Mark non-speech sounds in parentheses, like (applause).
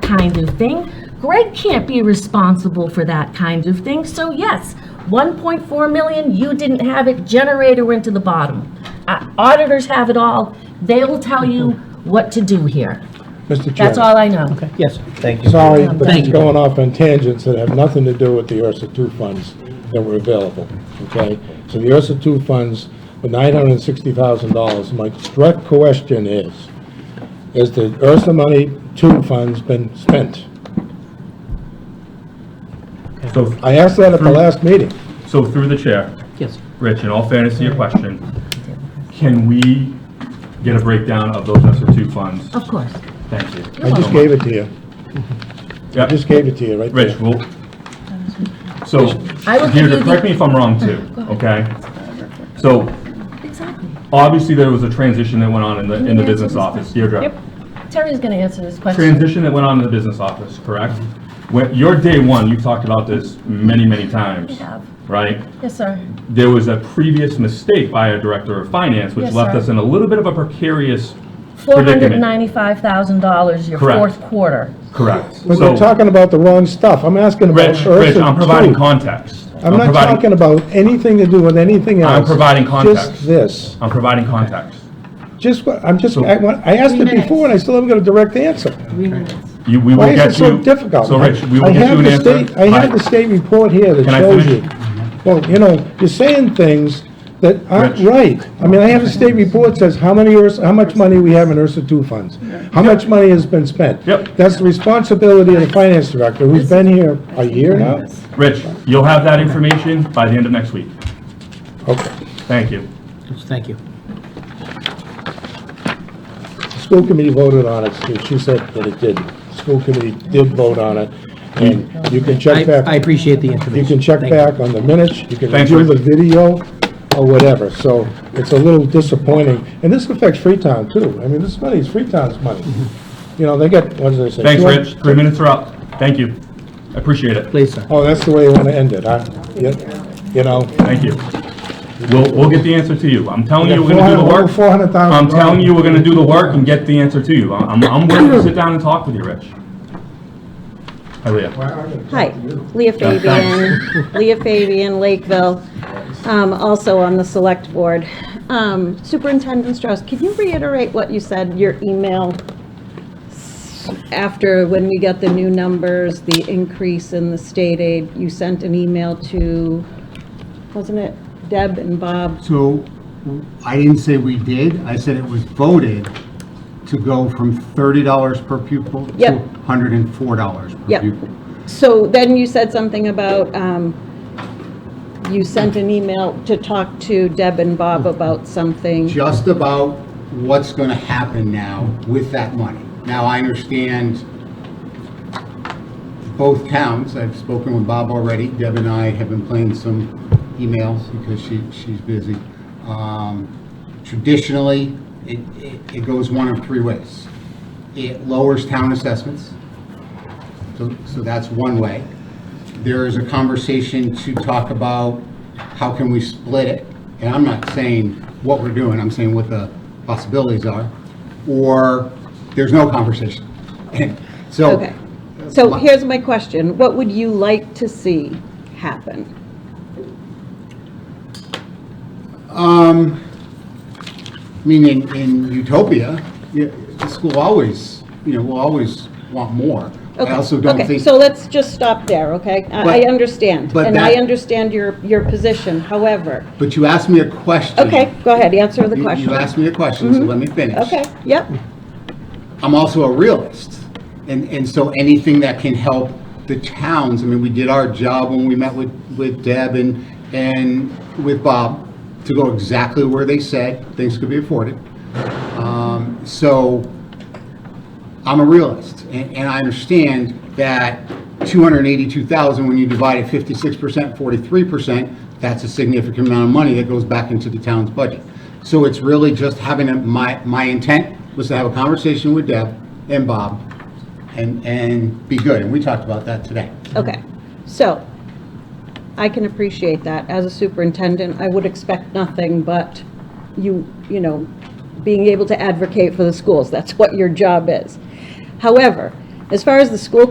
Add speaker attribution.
Speaker 1: kind of thing. Greg can't be responsible for that kind of thing. So yes, 1.4 million, you didn't have it, generator went to the bottom. Uh, Auditors have it all. They'll tell you what to do here.
Speaker 2: Mr.
Speaker 1: That's
Speaker 2: Chairman,
Speaker 1: all I know.
Speaker 3: Okay, yes.
Speaker 4: Thank you.
Speaker 2: sorry, but
Speaker 3: Thank
Speaker 2: it's
Speaker 3: you.
Speaker 2: going off on tangents that have nothing to do with the URSA two funds that were available, okay? So the URSA two funds, were nine hundred and sixty thousand dollars, my direct question is, is the URSA money two funds been spent?
Speaker 5: So,
Speaker 2: I asked that
Speaker 5: Hmm.
Speaker 2: at the last meeting.
Speaker 5: so through the chair,
Speaker 3: Yes.
Speaker 5: Rich, in all fairness to your question, can we get a breakdown of those ESER two funds?
Speaker 1: Of course.
Speaker 5: Thank you.
Speaker 2: I just gave it to you. I
Speaker 5: Yeah,
Speaker 2: just gave it to you right there.
Speaker 5: Rich, we'll, so,
Speaker 1: I will give you
Speaker 5: Deirdre,
Speaker 1: the-
Speaker 5: correct me if I'm wrong too, okay? So,
Speaker 1: Exactly.
Speaker 5: obviously, there was a transition that went on in the, in the business office,
Speaker 1: Yep.
Speaker 5: Deirdre.
Speaker 1: Terry's going to answer this question.
Speaker 5: Transition that went on in the business office, correct? When, your day one, you've talked about this many, many times,
Speaker 1: have.
Speaker 5: right?
Speaker 1: Yes, sir.
Speaker 5: there was a previous mistake by a director of finance, which
Speaker 1: Yes,
Speaker 5: left
Speaker 1: sir.
Speaker 5: us in a little bit of a precarious, Predicament.
Speaker 1: $495,000 your
Speaker 5: Correct.
Speaker 1: fourth quarter.
Speaker 5: correct?
Speaker 2: But you're
Speaker 5: So,
Speaker 2: talking about the wrong stuff. I'm asking about
Speaker 5: Rich,
Speaker 2: URSA
Speaker 5: Rich,
Speaker 2: two.
Speaker 5: I'm providing context.
Speaker 2: I'm not
Speaker 5: providing-
Speaker 2: talking about anything to do with anything else.
Speaker 5: I'm providing context.
Speaker 2: Just this.
Speaker 5: I'm providing context.
Speaker 2: Just, what I'm just, I want, I asked it before and I still haven't got a direct answer.
Speaker 5: You, we will
Speaker 2: Why
Speaker 5: get you.
Speaker 2: is it so difficult?
Speaker 5: So, Rich, we
Speaker 2: I
Speaker 5: will get
Speaker 2: have
Speaker 5: you an
Speaker 2: the
Speaker 5: answer.
Speaker 2: state- I have the state report here that
Speaker 5: Can I
Speaker 2: shows
Speaker 5: finish?
Speaker 2: you. Well, you know, you're saying things that aren't
Speaker 5: Rich.
Speaker 2: right. I mean, I have a state report that says how many, Urs- how much money we have in Ursa two funds, how much money has been spent.
Speaker 5: Yep.
Speaker 2: That's the responsibility of the finance director, who's been here a year now.
Speaker 5: Rich, you'll have that information by the end of next week.
Speaker 2: Okay.
Speaker 5: Thank you.
Speaker 3: Thank you.
Speaker 2: The School committee voted on it, so she said that it did. The School committee did vote on it, and you can
Speaker 3: I,
Speaker 2: check back.
Speaker 3: I appreciate the
Speaker 2: You
Speaker 3: information.
Speaker 2: can check
Speaker 3: Thank you.
Speaker 2: back on the minutes, you can
Speaker 5: Thanks,
Speaker 2: review the
Speaker 5: Rick.
Speaker 2: video, or whatever, so it's a little disappointing. And this affects Freetown too, I mean, this money is Freetown's money. You know, they get, what did they say?
Speaker 5: Thanks,
Speaker 2: 200
Speaker 5: Rich. Three minutes are up. Thank you. I Appreciate it.
Speaker 3: Please, sir.
Speaker 2: Oh, that's the way you wanna end it, huh? You you know?
Speaker 5: Thank you. We'll, we'll get the answer to you. I'm telling you, we're gonna do the work.
Speaker 2: Four hundred thousand.
Speaker 5: I'm telling you, we're gonna do the work and get the answer to you. I'm, I'm willing to sit down and talk with you, Rich. Oh, Hiya.
Speaker 6: Hi, Leah Fabian, Leah Fabian, Lakeville, um, also on the Select Board. Um, Superintendent Strauss, could you reiterate what you said, your email s- after, when we got the new numbers, the increase in the state aid, you sent an email to, wasn't it Deb and Bob?
Speaker 7: So I didn't say we did, I said it was voted to go from $30 per pupil to
Speaker 6: Yep.
Speaker 7: $104 per
Speaker 6: Yep.
Speaker 7: pupil.
Speaker 6: So then you said something about, um, you sent an email to talk to Deb and Bob about something.
Speaker 7: Just about what's going to happen now with that money. Now, I understand both towns, I've spoken with Bob already, Deb and I have been playing some emails because she, she's busy. Um, Traditionally, it, it- it goes one of three ways. It lowers town assessments, so, so that's one way. There is a conversation to talk about how can we split it, and I'm not saying what we're doing, I'm saying what the possibilities are, or there's no conversation. (laughs) So,
Speaker 6: Okay. So here's my question. What would you like to see happen?
Speaker 7: um, I mean, in, in utopia, yeah, the school always, you know, will always want more. I
Speaker 6: Okay,
Speaker 7: also don't
Speaker 6: okay,
Speaker 7: think.
Speaker 6: So let's just stop there, okay? I I
Speaker 7: But-
Speaker 6: understand,
Speaker 7: but
Speaker 6: and I
Speaker 7: that-
Speaker 6: understand your, your position. However,
Speaker 7: But you asked me a question.
Speaker 6: okay, go ahead, answer the
Speaker 7: You-
Speaker 6: question. Mm-hmm.
Speaker 7: You asked me a question, so let me finish.
Speaker 6: Okay, yep,
Speaker 7: I'm also a realist. And, and so anything that can help the towns, I mean, we did our job when we met with, with Deb and, and with Bob to go exactly where they said things could be afforded. Um, So I'm a realist and, and I understand that 282,000, when you divide it 56%, 43%, that's a significant amount of money that goes back into the town's budget. So it's really just having a, my, my intent was to have a conversation with Deb and Bob and, and be good. And we talked about that today.
Speaker 6: okay. So I can appreciate that. As a superintendent, I would expect nothing but you, you know, being able to advocate for the schools. That's what your job is. However, As far as the school